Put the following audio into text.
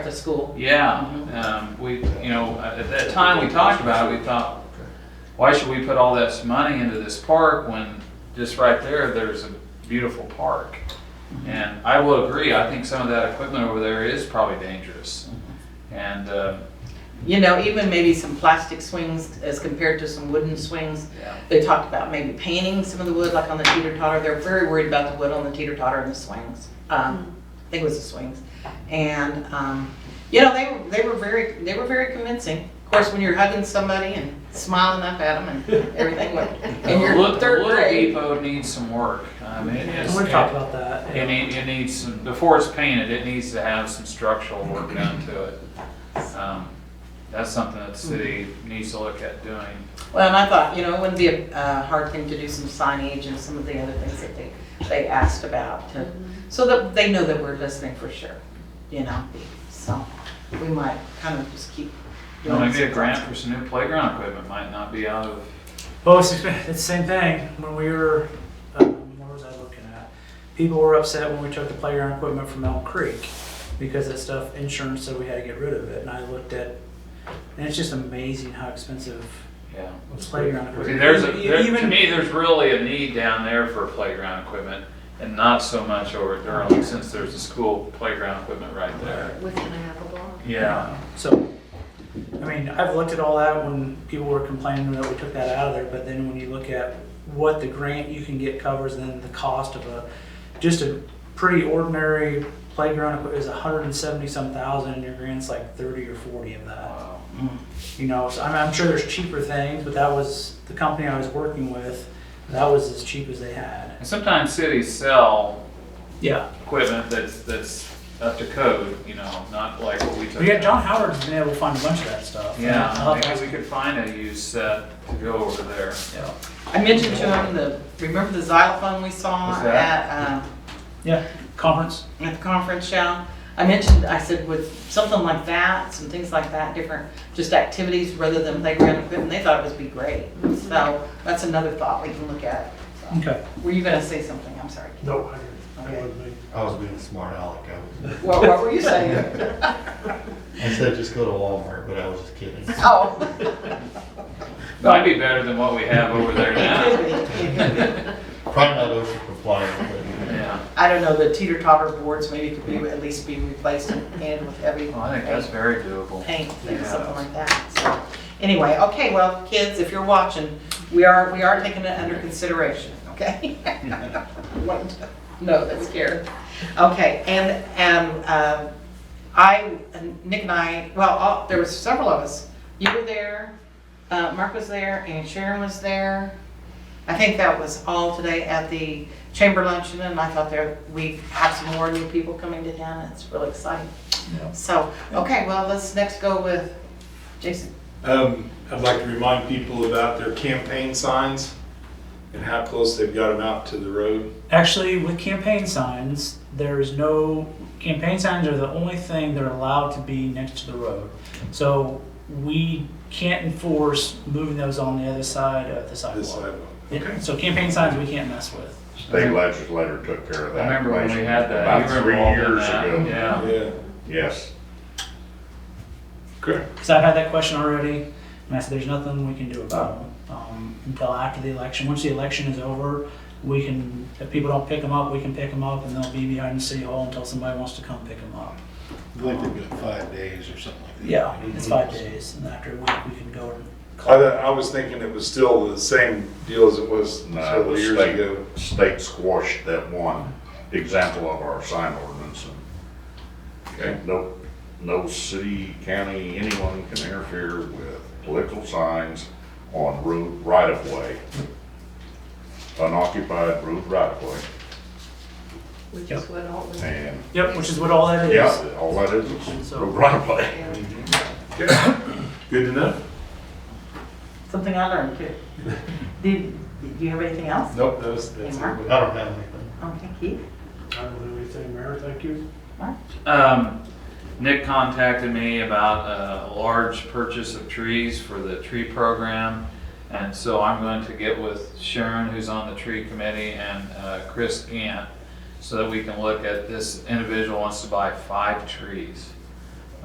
to school. Yeah, um, we, you know, at that time we talked about it, we thought, why should we put all this money into this park when just right there, there's a beautiful park? Mm-hmm. And I will agree, I think some of that equipment over there is probably dangerous. And, uh, You know, even maybe some plastic swings as compared to some wooden swings. yeah, They talked about maybe painting some of the wood, like on the teeter totter. They're very worried about the wood on the teeter totter and the swings. Um, I think it was the swings. And, um, you know, they were, they were very, they were very convincing. Of course, when you're hugging somebody and smiling up at them and everything, went- and the you're Little in third Little grade. Depot needs some work. I mean, it And is, we're talking it about that. it need, it needs some, before it's painted, it needs to have some structural work done to it. Um, That's something that the city needs to look at doing. Well, and I thought, you know, it wouldn't be a, a hard thing to do some signage and some of the other things that they, they asked about to, so that they know that we're listening for sure, you know? So we might kind of just keep. Well, doing Maybe a some- grant for some new playground equipment might not be out of, Well, it's, it's the same thing. When we were, um, what was I looking at? People were upset when we took the playground equipment from Elk Creek because that stuff, insurance said we had to get rid of it. And I looked at, and it's just amazing how expensive yeah. playground See, equipment. there's, a- E- there- to even- me, there's really a need down there for playground equipment and not so much over at Durham since there's a school playground equipment right there. Within a half a block. Yeah. So, I mean, I've looked at all that when people were complaining that we took that out of there, but then when you look at what the grant you can get covers, then the cost of a, just a pretty ordinary playground equip- is a hundred and seventy some thousand, and your grant's like thirty or forty of that. Wow. You know, so I'm, I'm sure there's cheaper things, but that was, the company I was working with, that was as cheap as they had. And sometimes cities sell Yeah. equipment that's, that's up to code, you know, not like what we took. But yeah, John Uh-huh. Howard's been able to find a bunch of that stuff. Yeah, I'll have to maybe ask we could find a used set to go over there. Yeah. I mentioned to him the, remember the xylophone we saw What's that? at, um, Yeah, conference. at the conference show. I mentioned, I said with something like that, some things like that, different, just activities rather than playground equipment, they thought it would be great. So that's another thought we can look at. So- Okay. Were you gonna say something? I'm sorry. No, I Okay. didn't. That wasn't me. I was being smart aleck. I was- What, what were you saying? I said just go to Walmart, but I was just kidding. Oh. Might be better than what we have over there now. Probably not OSHA compliant, Yeah, I don't know, the teeter totter boards maybe could be, at least be replaced and and with every. well, I think that's very doable. paint, things, Yeah. something like that, so. Anyway, okay, well, kids, if you're watching, we are, we are taking it under consideration, okay? Wanted to- No, that's scary. Okay, and, and, um, I, Nick and I, well, all- there was several of us. You were there, uh, Mark was there, and Sharon was there. I think that was all today at the chamber luncheon, and I thought there, we have some more new people coming to town, it's really exciting. So, okay, well, let's next go with Jason. Um, I'd like to remind people about their campaign signs and how close they've got them out to the road. Actually, with campaign signs, there is no, campaign signs are the only thing that are allowed to be next to the road. So we can't enforce moving those on the other side of the This sidewalk. sidewalk. Yeah, So campaign signs we can't mess with. State legislator took care of I that. remember when we had that. You About were three involved in years that. ago. Yeah. Yeah, Yes. correct. Because I've had that question already, and I said, there's nothing we can do about them um, until after the election. Once the election is over, we can, if people don't pick them up, we can pick them up, and they'll be behind the city hall until somebody wants to come pick them up. I believe they've got five days or something like that. Yeah, it's five days, and after a week, we can go and I, call. thought- I was thinking it was still the same deal as it was No, several uh, the years state- ago. State squashed that one example of our sign ordinance. and- Okay. No, no city, county, anyone can interfere with political signs on road right-of-way. Unoccupied road right-of-way. Which is what all the. And, Yep, which is what all that is. yeah, all that is is road right-of-way. Okay. Good to know. Something I learned too. Did, do you have anything else? Nope, that was, that's Mark? it. but I don't have anything. Okay, Keith? I don't know anything, Mayor, thank you. Um, Nick contacted me about a large purchase of trees for the tree program. And so I'm going to get with Sharon, who's on the tree committee, and uh, Chris Gant, so that we can look at this individual wants to buy five trees.